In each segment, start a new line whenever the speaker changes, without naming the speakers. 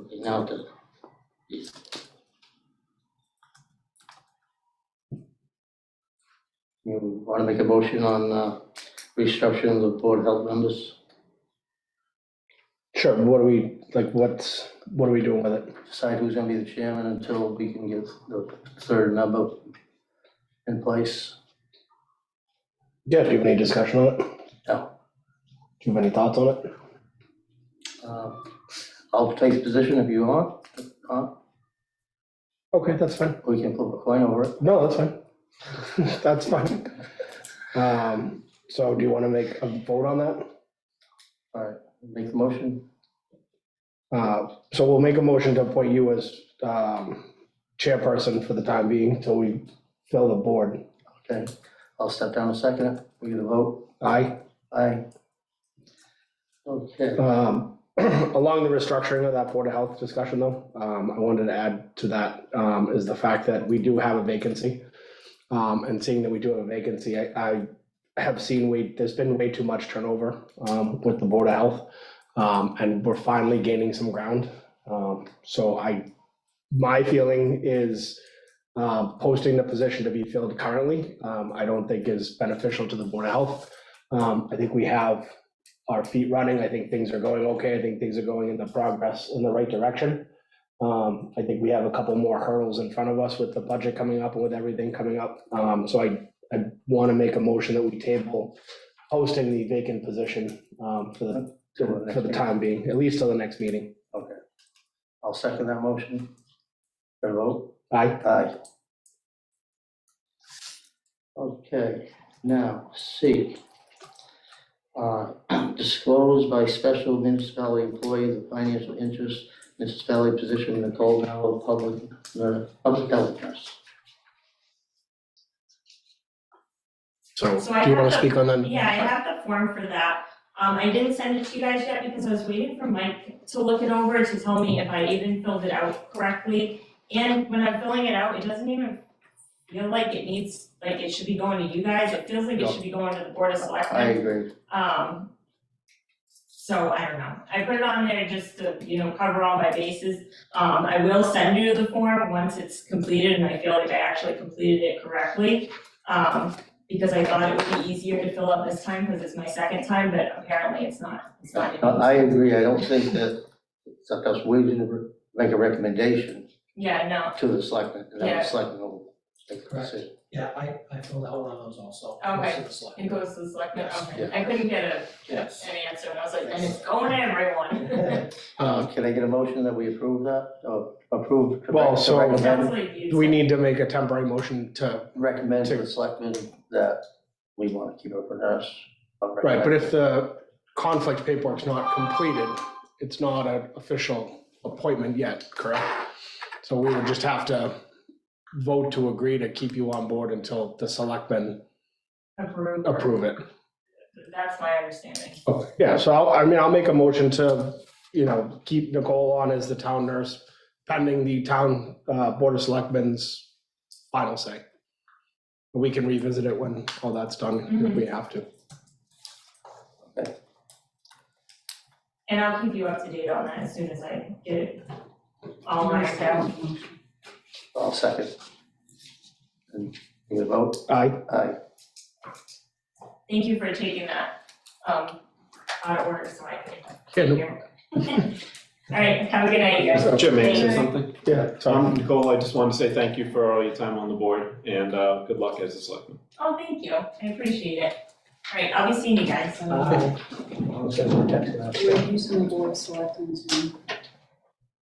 now it doesn't. Yes. You wanna make a motion on, uh, restructuring of board health members?
Sure, but what do we, like, what's, what are we doing with it?
decide who's gonna be the chairman until we can get the third number in place.
Yeah, do you have any discussion on it?
No.
Do you have any thoughts on it?
Uh, I'll take the position if you want, Uh,
Okay, that's fine.
we can flip a coin over it.
No, that's fine. That's fine. Um, so do you want to make a vote on that?
Make the motion,
Uh, so we'll make a motion to appoint you as, um, chairperson for the time being till we fill the board.
okay? I'll step down a second, we get a vote,
Aye.
aye. Okay,
Um, along the restructuring of that Board of Health discussion though, um, I wanted to add to that, um, is the fact that we do have a vacancy. Um, and seeing that we do have a vacancy, I, I have seen we, there's been way too much turnover, um, with the Board of Health. Um, and we're finally gaining some ground. Um, so I, my feeling is, um, posting the position to be filled currently, um, I don't think is beneficial to the Board of Health. Um, I think we have our feet running. I think things are going okay. I think things are going in the progress in the right direction. Um, I think we have a couple more hurdles in front of us with the budget coming up and with everything coming up. Um, so I, I want to make a motion that we table posting the vacant position, um, for the,
Till the next
for the
meeting.
time being, at least till the next meeting.
I'll second that motion. For a vote,
Aye.
aye. Okay, now, C. Uh, Disclose by special municipality employee the financial interest, municipality position, Nicole Mello, public, uh, public health nurse.
So
So I
do you want
have
to
the-
speak on that?
Yeah, I have the form for that. Um, I didn't send it to you guys yet because I was waiting for Mike to look it over to tell me if I even filled it out correctly. And when I'm filling it out, it doesn't even feel like it needs, like it should be going to you guys. It feels like
No.
it should be going to the Board of
I
Selectmen.
agree.
Um, so I don't know. I put it on there just to, you know, cover all my bases. Um, I will send you the form once it's completed and I feel like I actually completed it correctly. Um, because I thought it would be easier to fill up this time because it's my second time, but apparently it's not. It's
Uh,
not.
Uh, I I agree, I don't think that, it's up to us, we didn't make a recommendation
Yeah, no.
to the selectmen, and then
Yeah.
the selectmen will make the
Correct.
decision.
Yeah, I, I filled out one of those also.
Okay.
Most of the select-
It goes to the selectmen.
Yes,
Okay. I couldn't get a,
Yes.
an answer and I was like, and it's going to everyone.
Um,
Uh, Can I get a motion that we approve that, or approve? to
Well,
rec- to
so-
It sounds
Recommend,
like you.
We need to make a temporary motion to,
recommend to the selectmen that we want to keep it for nurse. but
right, but
recommend-
if the conflict paperwork's not completed, it's not an official appointment yet, correct? So we would just have to vote to agree to keep you on board until the selectmen
Approve.
approve it.
That's my understanding.
Oh, Yeah, so I'll, I mean, I'll make a motion to, you know, keep Nicole on as the town nurse pending the town, uh, board of selectmen's final say. We can revisit it when all that's done, if we have to.
And I'll keep you up to date on that as soon as I get it all lined out.
I'll second. And you vote,
Aye,
aye,
Thank you for taking that, um, out of order, so I
Yeah,
can hear. All right, have a good night, you guys.
Jim, may I
Thank
say
you.
something?
yeah,
Um,
sorry.
Nicole, I just wanted to say thank you for all your time on the board and uh, good luck as a selectman.
Oh, thank you, I appreciate it. All right, I'll be seeing you guys.
Uh,
We're using the board of selectmen to.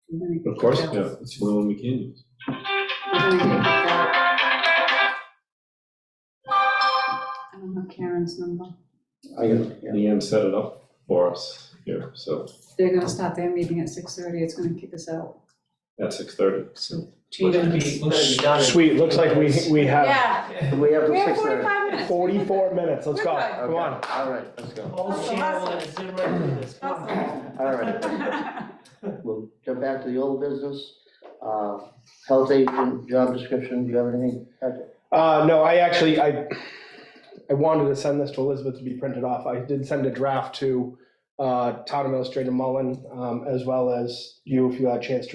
we're gonna get that-
Yeah, it's the only one we can use.
We're gonna get that. I don't have Karen's number.
I got it, yeah.
Leanne set it up for us here, so
They're gonna start their meeting at six thirty. It's gonna kick us out.
at six thirty.
So.
Looks to be, looks to be done. in-
Sweet, looks like we, we have
Yeah,
We have
we
the
have
six there.
forty-five minutes.
forty-four minutes, let's go,
Goodbye.
come on.
All right, let's go.
Oh, Shannon, let's zoom right through this. Come on.
All right. We'll jump back to the old business. Uh, Health agent, job description, do you have anything? Patrick?
Uh, no, I actually, I, I wanted to send this to Elizabeth to be printed off. I did send a draft to, uh, Town Administrator Mullen, um, as well as you, if you had a chance to